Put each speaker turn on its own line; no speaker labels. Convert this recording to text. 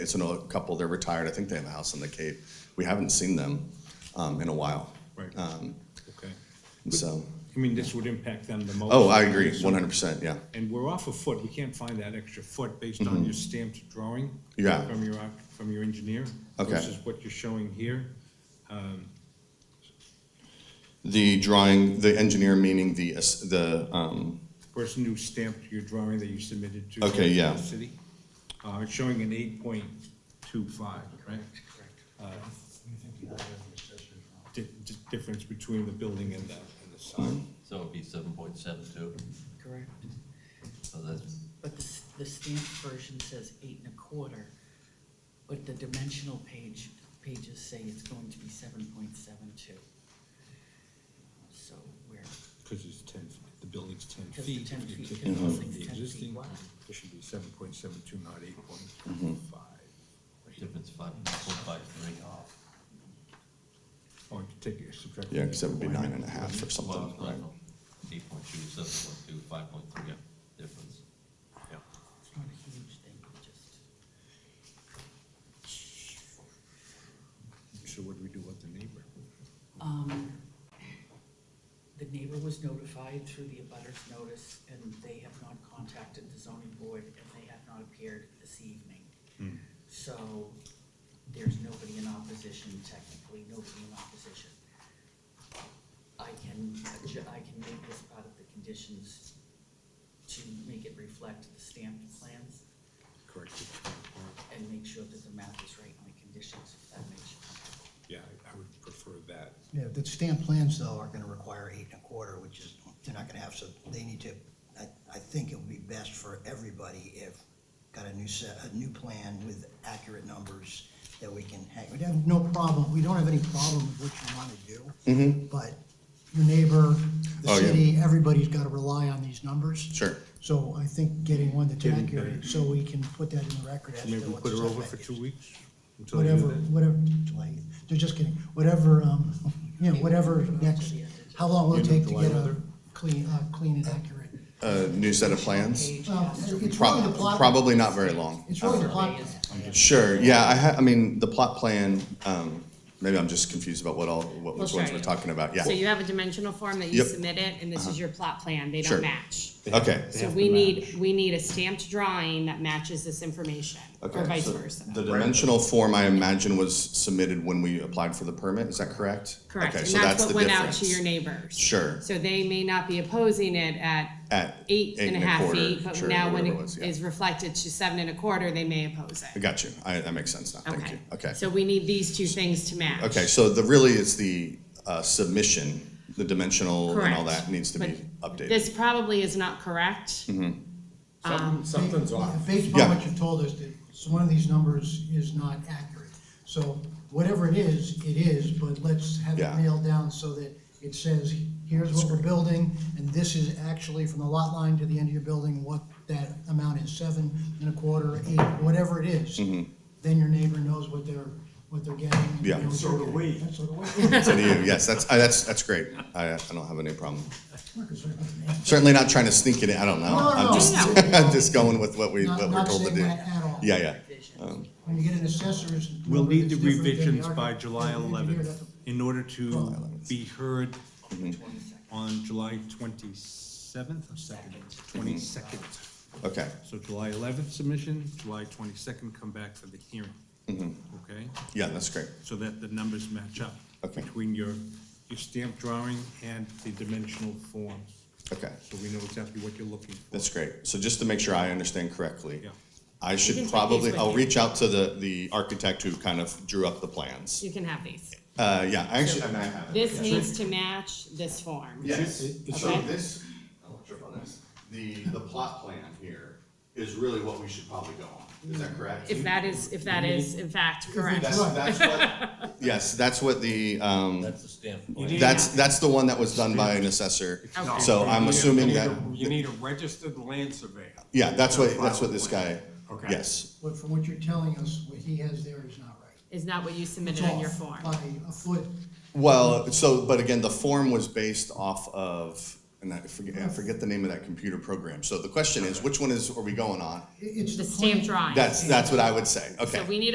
It's an old couple, they're retired, I think they have a house on the Cape. We haven't seen them um, in a while.
Right.
Um,
Okay.
and So,
I mean, this would impact them the most.
oh, I agree, one hundred percent, yeah.
And we're off a foot, we can't find that extra foot based on your stamped drawing.
Mm-hmm. Yeah.
From your, arch- from your engineer.
Okay.
Versus what you're showing here.
The drawing, the engineer meaning the, es- the, um,
Person who stamped your drawing that you submitted to.
Okay, yeah.
the City, uh, it's showing an eight point two five, right? Uh, Di- di- difference between the building and the, and the sign.
So it'd be seven point seven two,
Correct,
so that's,
but the, s- the stamped version says eight and a quarter, but the dimensional page, pages say it's going to be seven point seven two. So we're,
Because it's ten, the building's ten
Because
feet.
the 10
If you take
feet, because
off
it's
the
10 feet
existing,
wide.
It should be seven point seven two, not eight
Mm-hmm.
point five.
difference five point five three.
Or Oh, take it, subtract.
yeah, because that would be nine and a half or something, right?
Eight point two, seven point two, five point three difference. Yeah.
it's not a huge thing, it just,
So what do we do with the neighbor?
um, the neighbor was notified through the abutters notice, and they have not contacted the zoning board, and they have not appeared this evening.
Hmm.
So there's nobody in opposition, technically, nobody in opposition. I can, adj- I can make this part of the conditions to make it reflect the stamped plans
Correct.
and make sure that the map is right on the conditions, if that makes you comfortable.
Yeah, I- I would prefer that.
Yeah, the stamp plans though are gonna require eight and a quarter, which is, they're not gonna have, so they need to, I, I think it would be best for everybody if got a new set, a new plan with accurate numbers that we can hang, we'd have no problem, we don't have any problem with what you wanna do. But your neighbor,
Mm-hmm. Oh,
the
yeah.
city, everybody's gotta rely on these numbers.
Sure.
So I think getting one that's
Getting
accurate,
better.
so we can put that in the record as to
Maybe we
what the
put her over
setback
for
is
two weeks? until they do
whatever,
that?
whatever, July, they're just kidding, whatever, um, you know, whatever next, how long will it take to
July
get a
weather?
clean, uh, clean and accurate?
A new set of plans?
Page
Well,
has to
it's really the
Prob-
plot.
Probably not very long.
It's really the plot.
Survey is-
Sure, yeah, I ha, I mean, the plot plan, um, maybe I'm just confused about what all, what,
We'll
which ones
show
we're
you.
talking about, yeah.
So you have a dimensional form that you
Yep. Uh-huh.
submit it, and this is your plot plan, they
Sure.
don't match.
Okay,
So we need, we need a stamped drawing that matches this information,
okay.
or vice
so
versa.
The dimensional form, I imagine, was submitted when we applied for the permit, is that correct?
Correct,
Okay,
and
so
that's what
the
went out to
difference.
your neighbors.
Sure.
So they may not be opposing it at
At
eight and a half
quarter,
feet, but
sure,
now when
whatever
it
was, yeah.
is reflected to seven and a quarter, they may oppose
I
it.
got you, I, that makes sense now, thank you, okay.
So we need these two things to match.
Okay, so the, really, it's the, uh, submission, the dimensional and all
Correct.
that needs to be
But
updated. Mm-hmm.
This probably is not correct.
Something's off. Based upon
Yeah.
what you've told us, that s- one of these numbers is not accurate. So whatever it is, it is, but let's have it
Yeah.
nailed down so that it says, here's what we're building, and this is actually from the lot line to the end of your building, what that amount is, seven and a quarter, eight, whatever it is. Then your neighbor knows what they're, what they're getting. and
Mm-hmm. Yeah.
they know what
So
they're
do
getting.
we.
And So do we.
So do you, yes, that's, I, that's, that's great, I, I don't have any problem.
We're concerned about that.
Certainly not trying to sneak it in, I don't know.
No, no,
I'm
no.
just, I'm just going with what we,
Not-
what we're
not
told to
saying
do.
that at all.
Yeah, yeah.
Vision.
When you get an assessor's.
We'll
number
need the
that's different than
revisions by
architect-
July
than the engineer,
eleventh
that's a-
in order to be heard
Twenty-second.
on July twenty-seventh or second, twenty-second.
Okay,
So July eleventh submission, July twenty-second come back for the hearing.
Mm-hmm.
Okay?
yeah, that's great.
so that the numbers match up
Okay.
between your, your stamp drawing and the dimensional forms.
Okay,
So we know exactly what you're looking for.
that's great. So just to make sure I understand correctly,
Yeah.
I
can
should
take
probably,
these with
I'll
you.
reach out to the, the architect who kind of drew up the plans.
You can have these.
Uh, yeah, I actually, I mean, I have it.
This needs to match this form.
Yes,
It-
so
okay.
this, I'll trip on this, the, the plot plan here is really what we should probably go on. Is that correct?
If that is, if that is in fact correct.
That's, that's what, yes, that's what the, um,
That's the stamp.
That's, that's the one that was done by an assessor, so I'm assuming that,
You need a registered land surveyor.
yeah, that's what, that's what this guy, yes.
But from what you're telling us, what he has there is not right.
Is not what you
It's
submitted on your
off
form.
By a foot.
Well, so, but again, the form was based off of and I forget, I forget the name of that computer program. So the question is, which one is, are we going on?
It's
the stamp drawing.
That's, that's what I would say, okay.
So we need